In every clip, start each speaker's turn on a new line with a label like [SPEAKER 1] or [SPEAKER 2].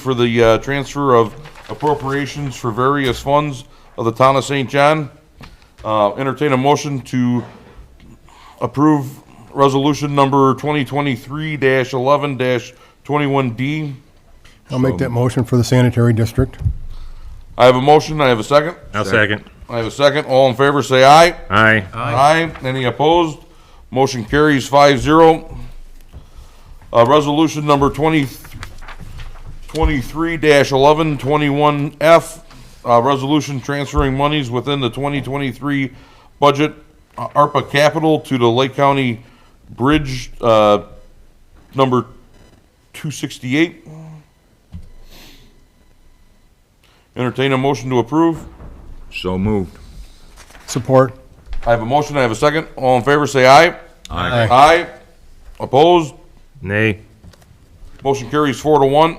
[SPEAKER 1] for the uh, transfer of appropriations for various funds of the town of St. John. Uh, Entertain a motion to approve resolution number 2023-11-21D.
[SPEAKER 2] I'll make that motion for the sanitary district.
[SPEAKER 1] I have a motion, I have a second.
[SPEAKER 3] I'll second.
[SPEAKER 1] I have a second. All in favor, say aye.
[SPEAKER 3] Aye.
[SPEAKER 1] Aye. Any opposed? Motion carries five zero. Uh, resolution number twenty, twenty-three dash eleven twenty-one F, uh, resolution transferring monies within the twenty twenty-three budget, uh, ARPA capital to the Lake County Bridge, uh, number two sixty-eight. Entertain a motion to approve.
[SPEAKER 4] So moved.
[SPEAKER 2] Support.
[SPEAKER 1] I have a motion, I have a second. All in favor, say aye.
[SPEAKER 4] Aye.
[SPEAKER 1] Aye. Opposed?
[SPEAKER 3] Nay.
[SPEAKER 1] Motion carries four to one.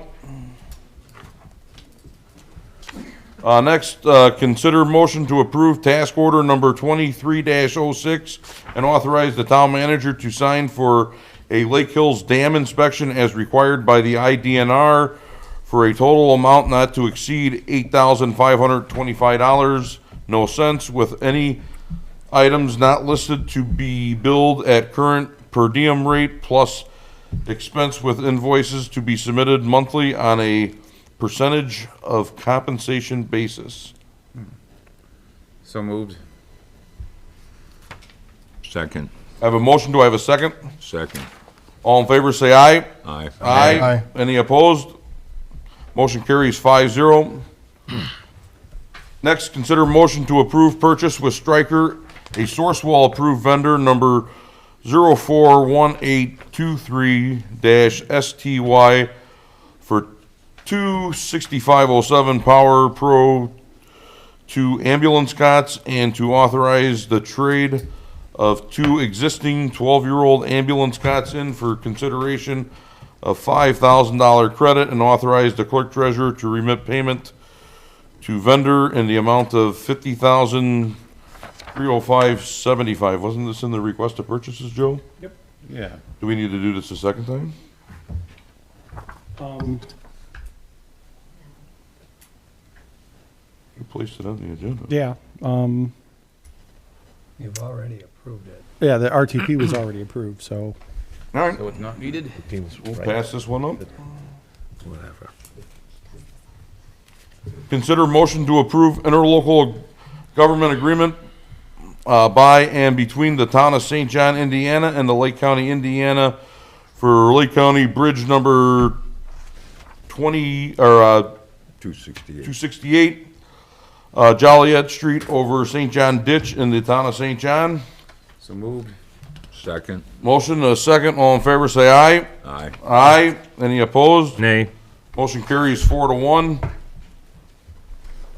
[SPEAKER 1] Uh, next, uh, consider motion to approve task order number twenty-three 6 and authorize the town manager to sign for a Lake Hills Dam inspection as required by the IDNR for a total amount not to exceed eight thousand five hundred twenty-five dollars, no cents, with any items not listed to be billed at current per diem rate plus expense with invoices to be submitted monthly on a percentage of compensation basis.
[SPEAKER 5] So moved.
[SPEAKER 4] Second,
[SPEAKER 1] I have a motion, do I have a second?
[SPEAKER 4] second.
[SPEAKER 1] All in favor, say aye.
[SPEAKER 4] Aye.
[SPEAKER 2] Aye.
[SPEAKER 1] Any opposed? Motion carries five zero. Next, consider motion to approve purchase with Stryker, a source wall approved vendor number zero four one eight two three dash STY for two sixty-five oh seven Power Pro to ambulance cots and to authorize the trade of two existing 12-year-old ambulance cots in for consideration of $5,000 credit and authorize the clerk treasurer to remit payment to vendor in the amount of $50,305.75. Wasn't this in the request of purchases, Joe? Yep.
[SPEAKER 5] Yeah.
[SPEAKER 1] Do we need to do this a second time?
[SPEAKER 6] Um,
[SPEAKER 1] You placed it on the agenda.
[SPEAKER 6] Yeah, um,
[SPEAKER 7] You've already approved it.
[SPEAKER 6] yeah, the RTP was already approved, so.
[SPEAKER 1] All right,
[SPEAKER 5] So it's not needed?
[SPEAKER 1] we'll pass this one up.
[SPEAKER 7] Whatever.
[SPEAKER 1] Consider motion to approve interlocal government agreement uh, by and between the town of St. John, Indiana and the Lake County, Indiana for Lake County Bridge Number 20, or uh,
[SPEAKER 4] Two sixty-eight.
[SPEAKER 1] 268, uh, Joliet Street over St. John Ditch in the town of St. John.
[SPEAKER 5] So moved.
[SPEAKER 4] Second,
[SPEAKER 1] Motion, a second, all in favor, say aye.
[SPEAKER 4] aye.
[SPEAKER 1] Aye. Any opposed?
[SPEAKER 3] Nay.
[SPEAKER 1] Motion carries four to one.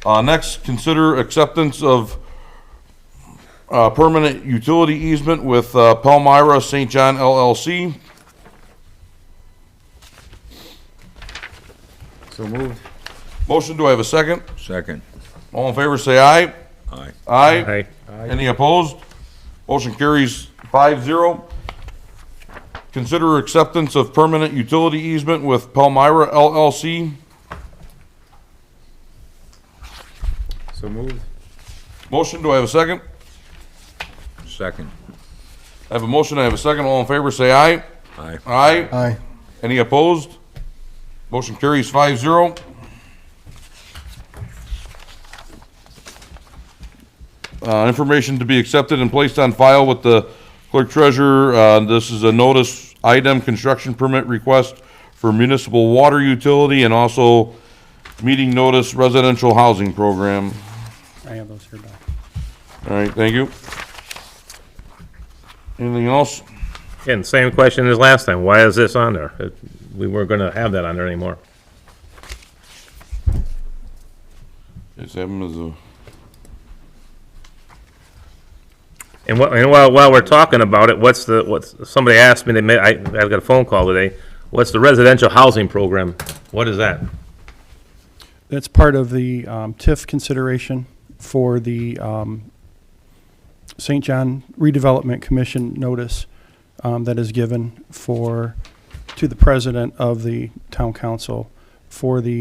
[SPEAKER 1] Uh, next, consider acceptance of, uh, permanent utility easement with, uh, Palmyra St. John LLC.
[SPEAKER 5] So moved.
[SPEAKER 1] Motion, do I have a second?
[SPEAKER 4] Second,
[SPEAKER 1] All in favor, say aye.
[SPEAKER 4] aye.
[SPEAKER 1] Aye.
[SPEAKER 3] Aye.
[SPEAKER 1] Any opposed? Motion carries five zero. Consider acceptance of permanent utility easement with Palmyra LLC.
[SPEAKER 5] So moved.
[SPEAKER 1] Motion, do I have a second?
[SPEAKER 4] Second,
[SPEAKER 1] I have a motion, I have a second. All in favor, say aye.
[SPEAKER 4] aye.
[SPEAKER 1] Aye.
[SPEAKER 2] Aye.
[SPEAKER 1] Any opposed? Motion carries five zero. Uh, information to be accepted and placed on file with the clerk treasurer. Uh, this is a notice item construction permit request for municipal water utility and also meeting notice residential housing program.
[SPEAKER 6] I have those here, Doc.
[SPEAKER 1] All right, thank you. Anything else?
[SPEAKER 3] And same question as last time. Why is this on there? It- We weren't gonna have that on there anymore.
[SPEAKER 1] Just have them as a.
[SPEAKER 3] And what, and while, while we're talking about it, what's the, what's, somebody asked me, they made, I, I got a phone call today. What's the residential housing program? What is that?
[SPEAKER 6] That's part of the, um, TIF consideration for the, um, St. John Redevelopment Commission notice, um, that is given for, to the president of the town council for the